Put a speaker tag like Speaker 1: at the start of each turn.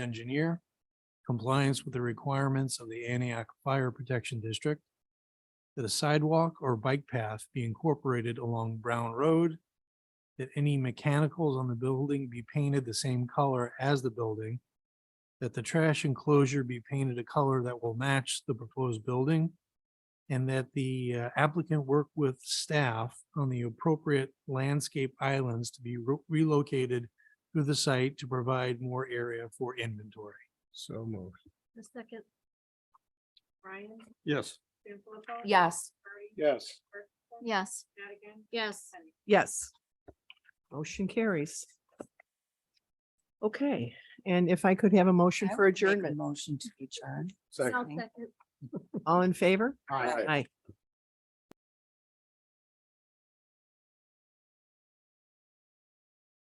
Speaker 1: engineer, compliance with the requirements of the Antioch Fire Protection District, that a sidewalk or bike path be incorporated along Brown Road, that any mechanicals on the building be painted the same color as the building, that the trash enclosure be painted a color that will match the proposed building, and that the uh, applicant work with staff on the appropriate landscape islands to be re- relocated to the site to provide more area for inventory.
Speaker 2: So moved.
Speaker 3: The second. Ryan.
Speaker 2: Yes.
Speaker 3: Sanfilippo.
Speaker 4: Yes.
Speaker 3: Murray.
Speaker 2: Yes.
Speaker 3: Ferguson,
Speaker 4: Yes.
Speaker 3: Madigan.
Speaker 4: Yes.
Speaker 3: Henry.
Speaker 5: Yes. Motion carries. Okay, and if I could have a motion for adjournment,
Speaker 4: Motion to adjourn.
Speaker 3: I'll
Speaker 4: Second.
Speaker 3: second.
Speaker 5: all in favor?
Speaker 2: Aye.
Speaker 5: Aye.